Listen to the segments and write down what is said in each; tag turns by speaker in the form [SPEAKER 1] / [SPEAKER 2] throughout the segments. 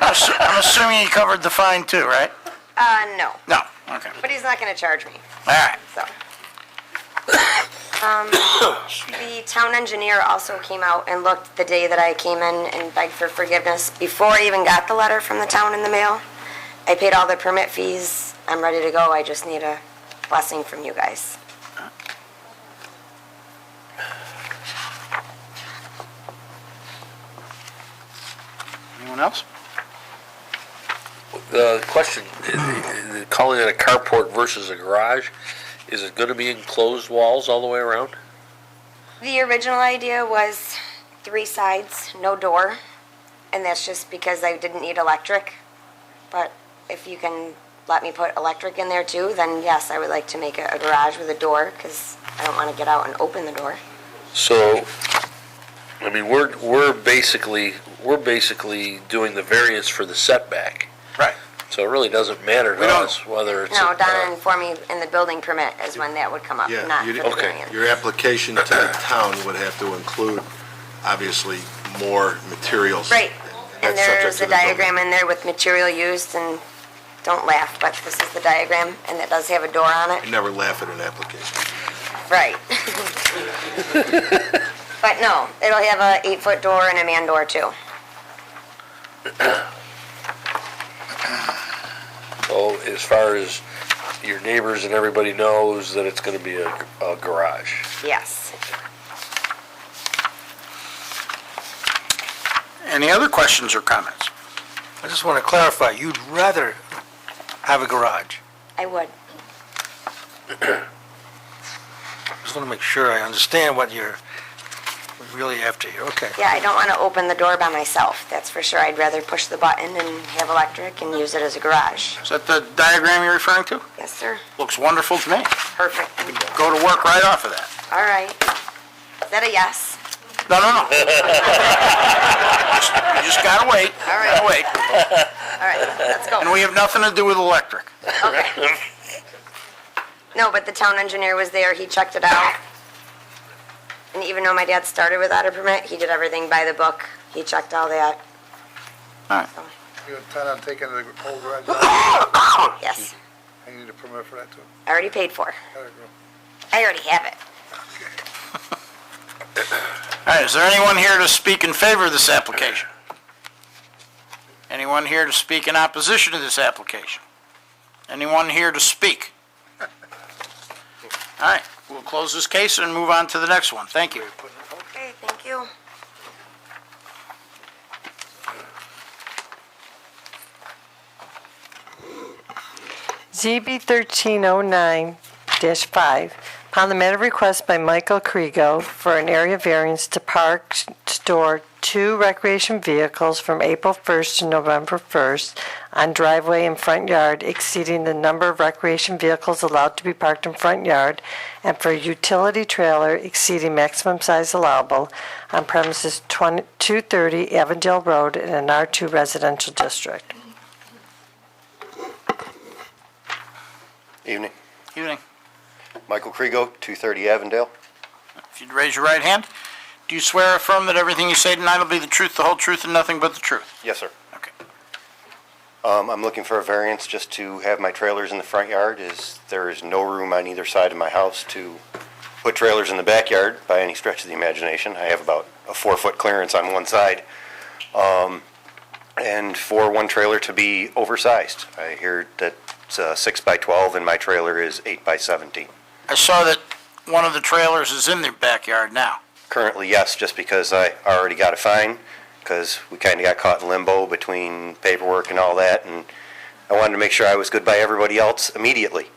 [SPEAKER 1] I'm assu- I'm assuming he covered the fine too, right?
[SPEAKER 2] Uh, no,
[SPEAKER 1] No, okay, all
[SPEAKER 2] but he's not gonna charge me,
[SPEAKER 1] right.
[SPEAKER 2] so. Um, the town engineer also came out and looked the day that I came in and begged for forgiveness before I even got the letter from the town in the mail. I paid all the permit fees, I'm ready to go, I just need a blessing from you guys.
[SPEAKER 1] Anyone else?
[SPEAKER 3] The question, the- the- calling it a carport versus a garage, is it gonna be enclosed walls all the way around?
[SPEAKER 2] The original idea was three sides, no door, and that's just because I didn't need electric. But if you can let me put electric in there too, then yes, I would like to make it a garage with a door, because I don't want to get out and open the door.
[SPEAKER 3] So, I mean, we're, we're basically, we're basically doing the variance for the setback.
[SPEAKER 1] Right.
[SPEAKER 3] So it really doesn't matter
[SPEAKER 1] We
[SPEAKER 3] to
[SPEAKER 1] don't-
[SPEAKER 3] us whether it's.
[SPEAKER 2] No,
[SPEAKER 3] a- uh,
[SPEAKER 2] Donna informed me in the building permit is when that would come up,
[SPEAKER 4] uh, Yeah,
[SPEAKER 2] not for
[SPEAKER 4] you
[SPEAKER 2] the
[SPEAKER 4] didn't-
[SPEAKER 3] okay,
[SPEAKER 2] variance.
[SPEAKER 4] Your application to the town would have to include, obviously, more materials.
[SPEAKER 2] Right, and
[SPEAKER 4] That's subject
[SPEAKER 2] there's
[SPEAKER 4] to
[SPEAKER 2] a
[SPEAKER 4] the building.
[SPEAKER 2] diagram in there with material used, and don't laugh, but this is the diagram, and it does have a door on it.
[SPEAKER 4] I never laugh at an application.
[SPEAKER 2] Right. But no, it'll have a eight-foot door and a man door too.
[SPEAKER 3] So oh, as far as your neighbors and everybody knows that it's gonna be a, a garage.
[SPEAKER 2] Yes.
[SPEAKER 1] Any other questions or comments?
[SPEAKER 5] I just want to clarify, you'd rather have a garage.
[SPEAKER 2] I would.
[SPEAKER 5] Just want to make sure I understand what you're really after here. Okay.
[SPEAKER 2] Yeah, I don't want to open the door by myself, that's for sure. I'd rather push the button and have electric and use it as a garage.
[SPEAKER 1] Is that the diagram you're referring to?
[SPEAKER 2] Yes, sir.
[SPEAKER 1] Looks wonderful to me.
[SPEAKER 2] Perfect.
[SPEAKER 1] Go to work right off of that.
[SPEAKER 2] All right. Is that a yes?
[SPEAKER 1] No, no, no. Just- You just gotta wait,
[SPEAKER 2] All
[SPEAKER 1] gotta
[SPEAKER 2] right,
[SPEAKER 1] wait.
[SPEAKER 2] all right, let's go.
[SPEAKER 1] And we have nothing to do with electric.
[SPEAKER 2] Okay. No, but the town engineer was there, he checked it out. And even though my dad started without a permit, he did everything by the book. He checked all that.
[SPEAKER 1] Alright.
[SPEAKER 6] You intend on taking the whole garage,
[SPEAKER 2] Yes,
[SPEAKER 6] I need a permit for that too.
[SPEAKER 2] I already paid for.
[SPEAKER 6] Gotta go.
[SPEAKER 2] I already have it.
[SPEAKER 1] All right, is there anyone here to speak in favor of this application? Anyone here to speak in opposition to this application? Anyone here to speak? All right, we'll close this case and move on to the next one. Thank you.
[SPEAKER 2] Okay, thank you.
[SPEAKER 7] ZB 1309-5, upon the matter of request by Michael Kriego for an area variance to park, s- store two recreation vehicles from April 1st to November 1st on driveway and front yard exceeding the number of recreation vehicles allowed to be parked in front yard and for a utility trailer exceeding maximum size allowable on premises 20 230 Avondale Road in an R2 residential district.
[SPEAKER 8] Evening.
[SPEAKER 1] Evening.
[SPEAKER 8] Michael Kriego, 230 Avondale.
[SPEAKER 1] If you'd raise your right hand, do you swear or affirm that everything you say tonight will be the truth, the whole truth, and nothing but the truth?
[SPEAKER 8] Yes, sir.
[SPEAKER 1] Okay.
[SPEAKER 8] Um, I'm looking for a variance just to have my trailers in the front yard, as there is no room on either side of my house to put trailers in the backyard by any stretch of the imagination. I have about a four-foot clearance on one side. Um, And for one trailer to be oversized. I hear that it's uh, six by 12 and my trailer is eight by 17.
[SPEAKER 1] I saw that one of the trailers is in the backyard now.
[SPEAKER 8] Currently, yes, just because I already got a fine, because we kind of got caught in limbo between paperwork and all that, and I wanted to make sure I was good by everybody else immediately.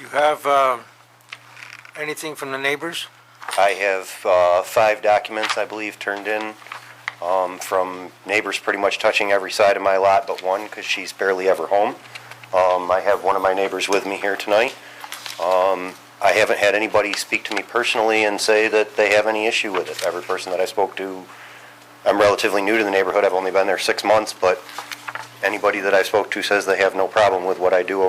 [SPEAKER 5] You have uh, anything from the neighbors?
[SPEAKER 8] I have uh, five documents, I believe, turned in um, from neighbors pretty much touching every side of my lot but one, because she's barely ever home. Um, I have one of my neighbors with me here tonight. Um, I haven't had anybody speak to me personally and say that they have any issue with it. Every person that I spoke to, I'm relatively new to the neighborhood, I've only been there six months, but anybody that I spoke to says they have no problem with what I do